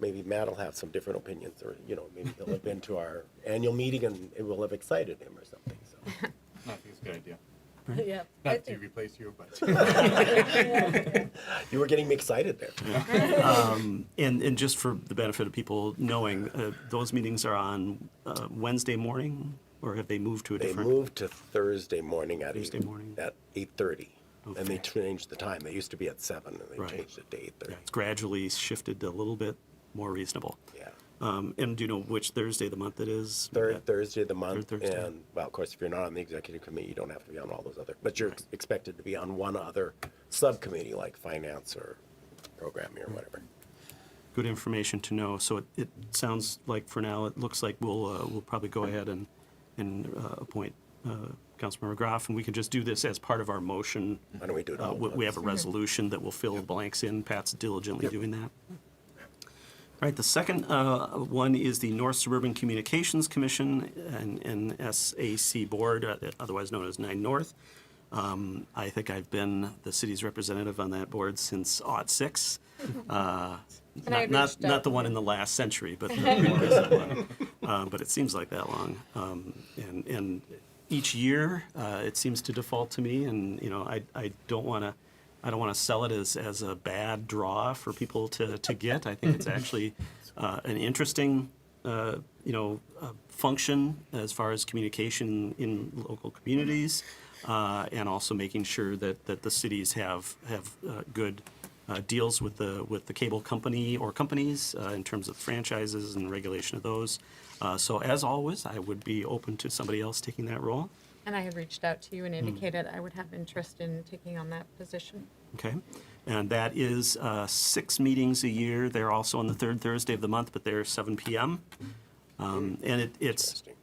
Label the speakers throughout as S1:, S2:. S1: maybe Matt will have some different opinions, or, you know, maybe he'll have been to our annual meeting and it will have excited him or something, so.
S2: No, I think it's a good idea.
S3: Yeah. I
S2: Not to
S3: think-
S2: replace you, but
S1: You were getting me excited there.
S4: Um, And, and just for the benefit of people knowing, uh, those meetings are on uh, Wednesday morning, or have they moved to a
S1: They
S4: different?
S1: moved to Thursday morning at
S4: Thursday
S1: eight,
S4: morning.
S1: at eight-thirty. And they
S4: Okay.
S1: changed the time. They used to be at seven and they
S4: Right.
S1: changed it to eight-thirty.
S4: Yeah, It's gradually shifted to a little bit more reasonable.
S1: Yeah.
S4: Um, and do you know which Thursday of the month it is?
S1: Third
S4: Yeah.
S1: Thursday of the month,
S4: Third Thursday.
S1: and, well, of course, if you're not on the executive committee, you don't have to be on all those other, but you're ex- expected to be on one other subcommittee, like finance or programming or whatever.
S4: Good information to know. So it, it sounds like for now, it looks like we'll, uh, we'll probably go ahead and, and uh, appoint uh, Councilmember Graff, and we can just do this as part of our motion.
S1: Why don't we do it
S4: Uh,
S1: all?
S4: we, we have a resolution that will fill the blanks in. Pat's diligently doing that. All right, the second uh, one is the North Suburban Communications Commission and NSAC Board, uh, otherwise known as Nine North. Um, I think I've been the city's representative on that board since aught six. Uh,
S3: And I
S4: Not,
S3: had
S4: not,
S3: reached
S4: not
S3: out.
S4: the one in the last century, but the more recent one. Uh, But it seems like that long. Um, And, and each year, uh, it seems to default to me, and, you know, I, I don't want to, I don't want to sell it as, as a bad draw for people to, to get. I think it's actually uh, an interesting, uh, you know, uh, function as far as communication in local communities, uh, and also making sure that, that the cities have, have uh, good uh, deals with the, with the cable company or companies uh, in terms of franchises and regulation of those. Uh, So as always, I would be open to somebody else taking that role.
S3: And I had reached out to you and indicated I would have interest in taking on that position.
S4: Okay. And that is uh, six meetings a year. They're also on the third Thursday of the month, but they're 7 p.m. Um, and it, it's,
S1: Interesting.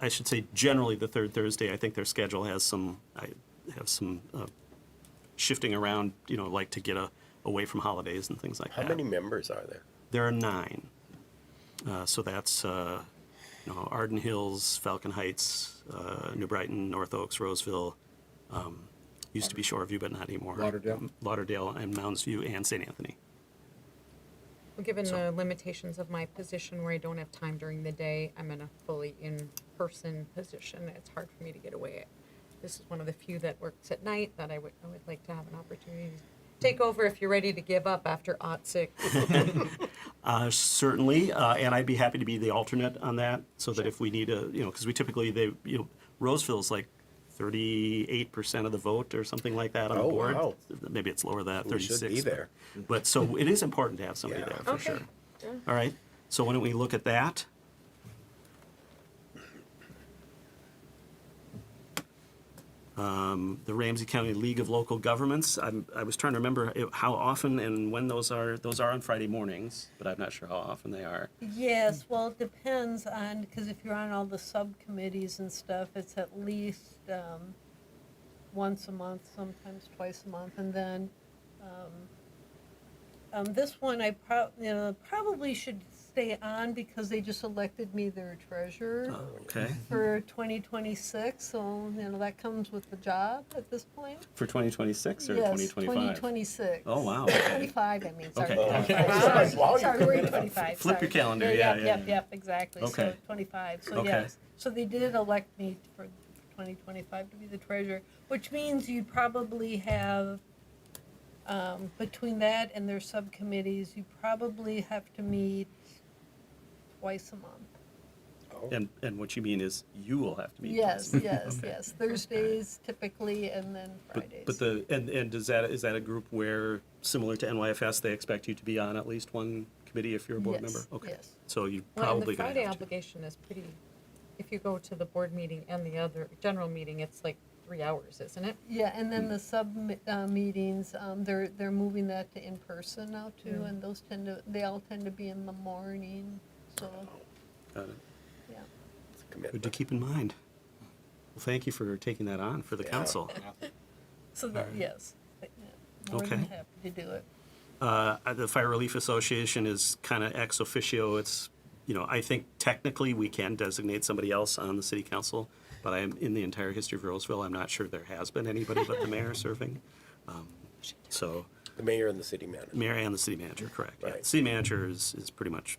S4: I should say, generally the third Thursday. I think their schedule has some, I have some uh, shifting around, you know, like to get a, away from holidays and things like
S1: How
S4: that.
S1: many members are there?
S4: There are nine. Uh, so that's, uh, you know, Arden Hills, Falcon Heights, uh, New Brighton, North Oaks, Roseville. Um, used to be Shoreview, but not anymore.
S5: Lauderdale.
S4: Lauderdale and Mounds View and St. Anthony.
S3: Given the limitations of my position where I don't have time during the day, I'm in a fully in-person position. It's hard for me to get away. This is one of the few that works at night that I would, I would like to have an opportunity to take over if you're ready to give up after aught six.
S4: Uh, certainly, uh, and I'd be happy to be the alternate on that, so that if we need a, you know, because we typically, they, you know, Roseville's like thirty-eight percent of the vote or something like that on the
S1: Oh,
S4: board.
S1: wow.
S4: Maybe it's lower than that,
S1: We should
S4: thirty-six.
S1: be
S4: but-
S1: there.
S4: But, so it is important to have somebody
S1: Yeah.
S4: there, for
S3: Okay.
S4: sure.
S3: Yeah.
S4: All right, so why don't we look at that? Um, The Ramsey County League of Local Governments, I'm, I was trying to remember it- how often and when those are, those are on Friday mornings, but I'm not sure how often they are.
S6: Yes, well, it depends on, because if you're on all the subcommittees and stuff, it's at least um, once a month, sometimes twice a month, and then um, um, this one I prob, you know, probably should stay on because they just elected me their treasurer
S4: Okay,
S6: for 2026, so, you know, that comes with the job at this point.
S4: for 2026 or
S6: Yes,
S4: 2025?
S6: 2026.
S4: Oh, wow, okay.
S6: 25, I mean, sorry.
S4: Okay.
S6: 25,
S1: Wow.
S6: sorry, Sorry, we're in 25.
S4: Flip your
S6: sorry.
S4: calendar, yeah,
S6: Yep,
S4: yeah,
S6: yep,
S4: yeah.
S6: yep, exactly. So
S4: Okay.
S6: 25, so
S4: Okay.
S6: yes. So they did elect me for 2025 to be the treasurer, which means you'd probably have, um, between that and their subcommittees, you probably have to meet twice a month.
S4: And, and what you mean is you will have to be.
S6: Yes, yes, yes. Thursdays typically, and then Fridays.
S4: But the, and, and does that, is that a group where, similar to NYFS, they expect you to be on at least one committee if you're a board
S6: Yes,
S4: member? Okay.
S6: yes.
S4: So you're
S3: Well, and the
S4: probably gonna
S3: Friday
S4: have to.
S3: obligation is pretty, if you go to the board meeting and the other general meeting, it's like three hours, isn't it?
S6: Yeah, and
S4: Hmm.
S6: then the sub mi- uh, meetings, um, they're, they're moving that to in-person now too,
S4: Hmm.
S6: and those tend to, they all tend to be in the morning, so,
S4: Got it.
S6: yeah.
S1: It's a
S4: Good to
S1: commitment.
S4: keep in mind. Well, thank you for taking that on for the
S1: Yeah.
S4: council.
S6: So that, yes, but, yeah, more than
S4: Okay.
S6: happy to do it.
S4: Uh, the Fire Relief Association is kind of ex officio. It's, you know, I think technically we can designate somebody else on the city council, but I am, in the entire history of Roseville, I'm not sure there has been anybody but the mayor serving. Um, So,
S1: The mayor and the city manager.
S4: Mayor and the city manager, correct. Yeah,
S1: Right.
S4: City manager is, is pretty much